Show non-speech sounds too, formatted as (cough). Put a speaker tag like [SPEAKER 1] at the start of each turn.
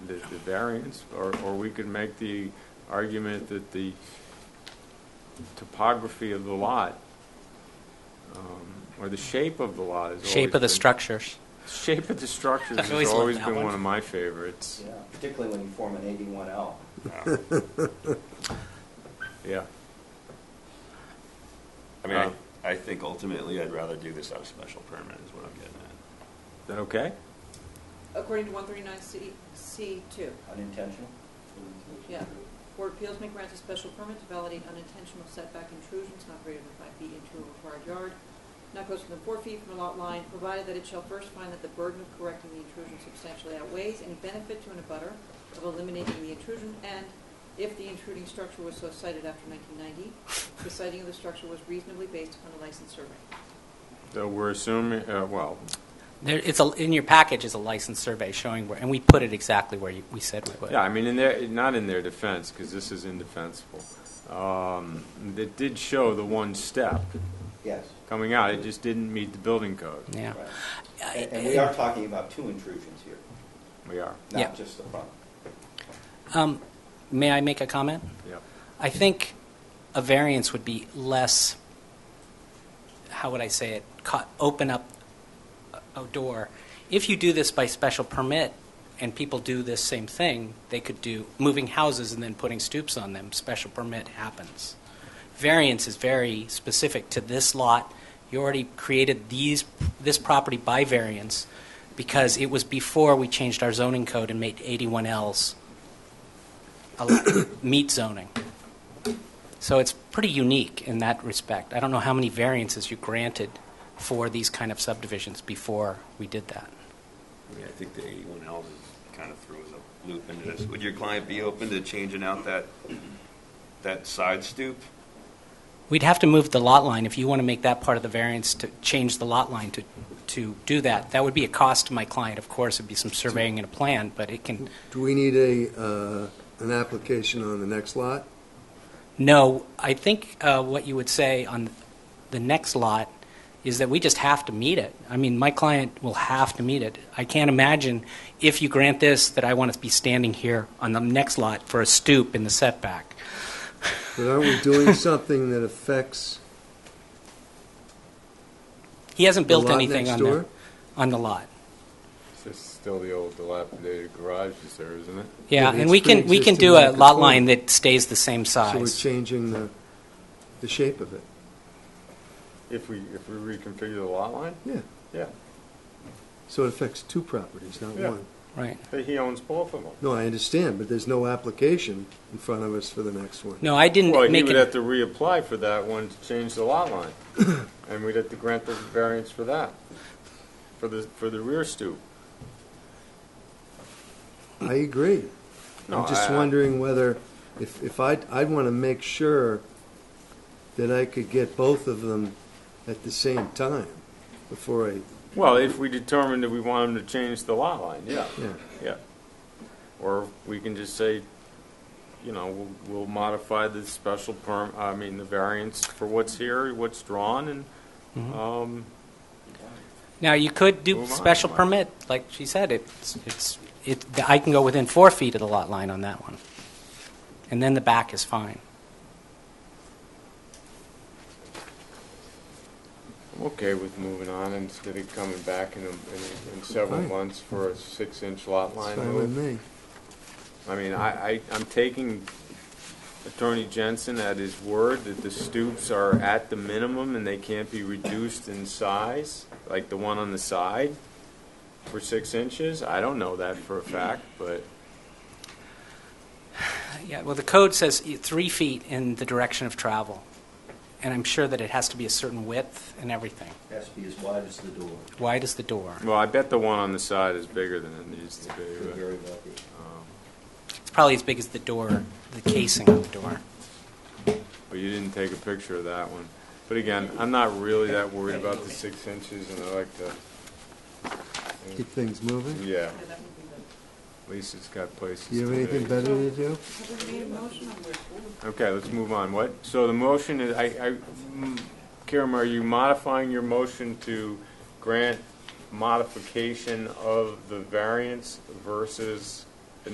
[SPEAKER 1] the, the variance, or, or we could make the argument that the topography of the lot, um, or the shape of the lot is
[SPEAKER 2] Shape of the
[SPEAKER 1] structure.
[SPEAKER 2] structures.
[SPEAKER 1] Shape of the structures
[SPEAKER 2] I always
[SPEAKER 1] has
[SPEAKER 2] love
[SPEAKER 1] always
[SPEAKER 2] that
[SPEAKER 1] been
[SPEAKER 2] one.
[SPEAKER 1] one of my favorites.
[SPEAKER 3] Yeah, particularly when you form an eighty-one L.
[SPEAKER 1] Yeah,
[SPEAKER 4] I mean, I,
[SPEAKER 1] Um,
[SPEAKER 4] I think ultimately I'd rather do this on a special permit is what I'm getting at.
[SPEAKER 1] is that okay?
[SPEAKER 5] according to 139C, C2.
[SPEAKER 3] Unintentional?
[SPEAKER 5] Yeah. Board of Appeals may grant a special permit to validate unintentional setback intrusions not greater than five feet into a required yard, not closer than four feet from a lot line, provided that it shall first find that the burden of correcting the intrusion substantially outweighs any benefit to an abutter of eliminating the intrusion, and if the intruding structure was so cited after 1990, the citing of the structure was reasonably based upon a licensed survey.
[SPEAKER 1] So we're assuming, uh, well,
[SPEAKER 2] There, it's a, in your package is a license survey showing where, and we put it exactly where you, we said we would.
[SPEAKER 1] Yeah, I mean, in their, not in their defense, because this is indefensible. Um, It did show the one step
[SPEAKER 3] Yes,
[SPEAKER 1] coming out, it just didn't meet the building code.
[SPEAKER 2] Yeah.
[SPEAKER 3] right.
[SPEAKER 2] I-
[SPEAKER 3] And and we are talking about two intrusions here,
[SPEAKER 1] We are,
[SPEAKER 2] Yeah.
[SPEAKER 3] not just the front.
[SPEAKER 2] Um, may I make a comment?
[SPEAKER 1] yeah.
[SPEAKER 2] I think a variance would be less, how would I say it, co- open up a- a door. If you do this by special permit and people do this same thing, they could do moving houses and then putting stoops on them, special permit happens. Variance is very specific to this lot. You already created these, this property by variance because it was before we changed our zoning code and made 81Ls al- (coughs) meet zoning. So it's pretty unique in that respect. I don't know how many variances you granted for these kind of subdivisions before we did that.
[SPEAKER 4] I mean, I think the eighty-one L's is kind of throws a loop into this. Would your client be open to changing out that, that side stoop?
[SPEAKER 2] We'd have to move the lot line if you want to make that part of the variance to change the lot line to, to do that. That would be a cost to my client, of course. It'd be some surveying and a plan, but it can,
[SPEAKER 6] Do we need a, uh, an application on the next lot?
[SPEAKER 2] no, I think uh, what you would say on the next lot is that we just have to meet it. I mean, my client will have to meet it. I can't imagine if you grant this that I want to be standing here on the next lot for a stoop in the setback.
[SPEAKER 6] But aren't we
[SPEAKER 2] (laughs)
[SPEAKER 6] doing something that affects
[SPEAKER 2] He hasn't
[SPEAKER 6] the
[SPEAKER 2] built
[SPEAKER 6] lot
[SPEAKER 2] anything
[SPEAKER 6] next
[SPEAKER 2] on
[SPEAKER 6] door?
[SPEAKER 2] the, on the lot.
[SPEAKER 1] This is still the old dilapidated garage is there, isn't it?
[SPEAKER 6] Yeah,
[SPEAKER 2] Yeah,
[SPEAKER 6] but
[SPEAKER 2] and
[SPEAKER 6] it's
[SPEAKER 2] we can, we can
[SPEAKER 6] pre-existing
[SPEAKER 2] do a lot
[SPEAKER 6] non-conforming.
[SPEAKER 2] line that stays the same
[SPEAKER 6] So we're
[SPEAKER 2] size.
[SPEAKER 6] changing the, the shape of it.
[SPEAKER 1] If we, if we reconfigure the lot line?
[SPEAKER 6] Yeah,
[SPEAKER 1] Yeah.
[SPEAKER 6] so it affects two properties, not
[SPEAKER 1] Yeah.
[SPEAKER 6] one.
[SPEAKER 2] Right.
[SPEAKER 1] But he owns both of them.
[SPEAKER 6] No, I understand, but there's no application in front of us for the next one.
[SPEAKER 2] No, I
[SPEAKER 1] Well,
[SPEAKER 2] didn't
[SPEAKER 1] he
[SPEAKER 2] make
[SPEAKER 1] would have
[SPEAKER 2] it,
[SPEAKER 1] to reapply for that one to change the lot line,
[SPEAKER 2] (coughs)
[SPEAKER 1] and we'd have to grant the variance for that, for the, for the rear stoop.
[SPEAKER 6] I agree.
[SPEAKER 1] No,
[SPEAKER 6] I'm just
[SPEAKER 1] I- I-
[SPEAKER 6] wondering whether, if, if I, I'd want to make sure that I could get both of them at the same time before I,
[SPEAKER 1] Well, if we determine that we want him to change the lot line, yeah.
[SPEAKER 6] yeah.
[SPEAKER 1] Yeah. Or we can just say, you know, we'll, we'll modify the special perm, I mean, the variance for what's here, what's drawn, and, um,
[SPEAKER 2] now you could do
[SPEAKER 1] Move on,
[SPEAKER 2] special
[SPEAKER 1] Mike.
[SPEAKER 2] permit, like she said, it's, it's, it, I can go within four feet of the lot line on that one. And then the back is fine.
[SPEAKER 1] I'm okay with moving on instead of coming back in, a- in, in several
[SPEAKER 6] Fine.
[SPEAKER 1] months for a six-inch lot
[SPEAKER 6] It's
[SPEAKER 1] line
[SPEAKER 6] fine with
[SPEAKER 1] move.
[SPEAKER 6] me.
[SPEAKER 1] I mean, I, I, I'm taking Attorney Jensen at his word that the stoops are at the minimum and they can't be reduced in size, like the one on the side for six inches. I don't know that for a fact, but.
[SPEAKER 2] Yeah, well, the code says e- three feet in the direction of travel, and I'm sure that it has to be a certain width and everything.
[SPEAKER 3] Has to be as wide as the door.
[SPEAKER 2] Wide as the door.
[SPEAKER 1] Well, I bet the one on the side is bigger than it needs to be.
[SPEAKER 3] Could
[SPEAKER 1] but-
[SPEAKER 3] very well be.
[SPEAKER 2] It's probably as big as the door, the casing of the door.
[SPEAKER 1] But you didn't take a picture of that one. But again, I'm not really that worried about the six inches, and I like to,
[SPEAKER 6] Keep things moving.
[SPEAKER 1] yeah,
[SPEAKER 5] Yeah, that would be the-
[SPEAKER 1] at least it's got places
[SPEAKER 6] Do you have
[SPEAKER 1] to be.
[SPEAKER 6] anything better to do?
[SPEAKER 5] Have we made a motion on this?
[SPEAKER 1] Okay, let's move on. What, so the motion is, I, I, mm, Kiram, are you modifying your motion to grant modification of the variance versus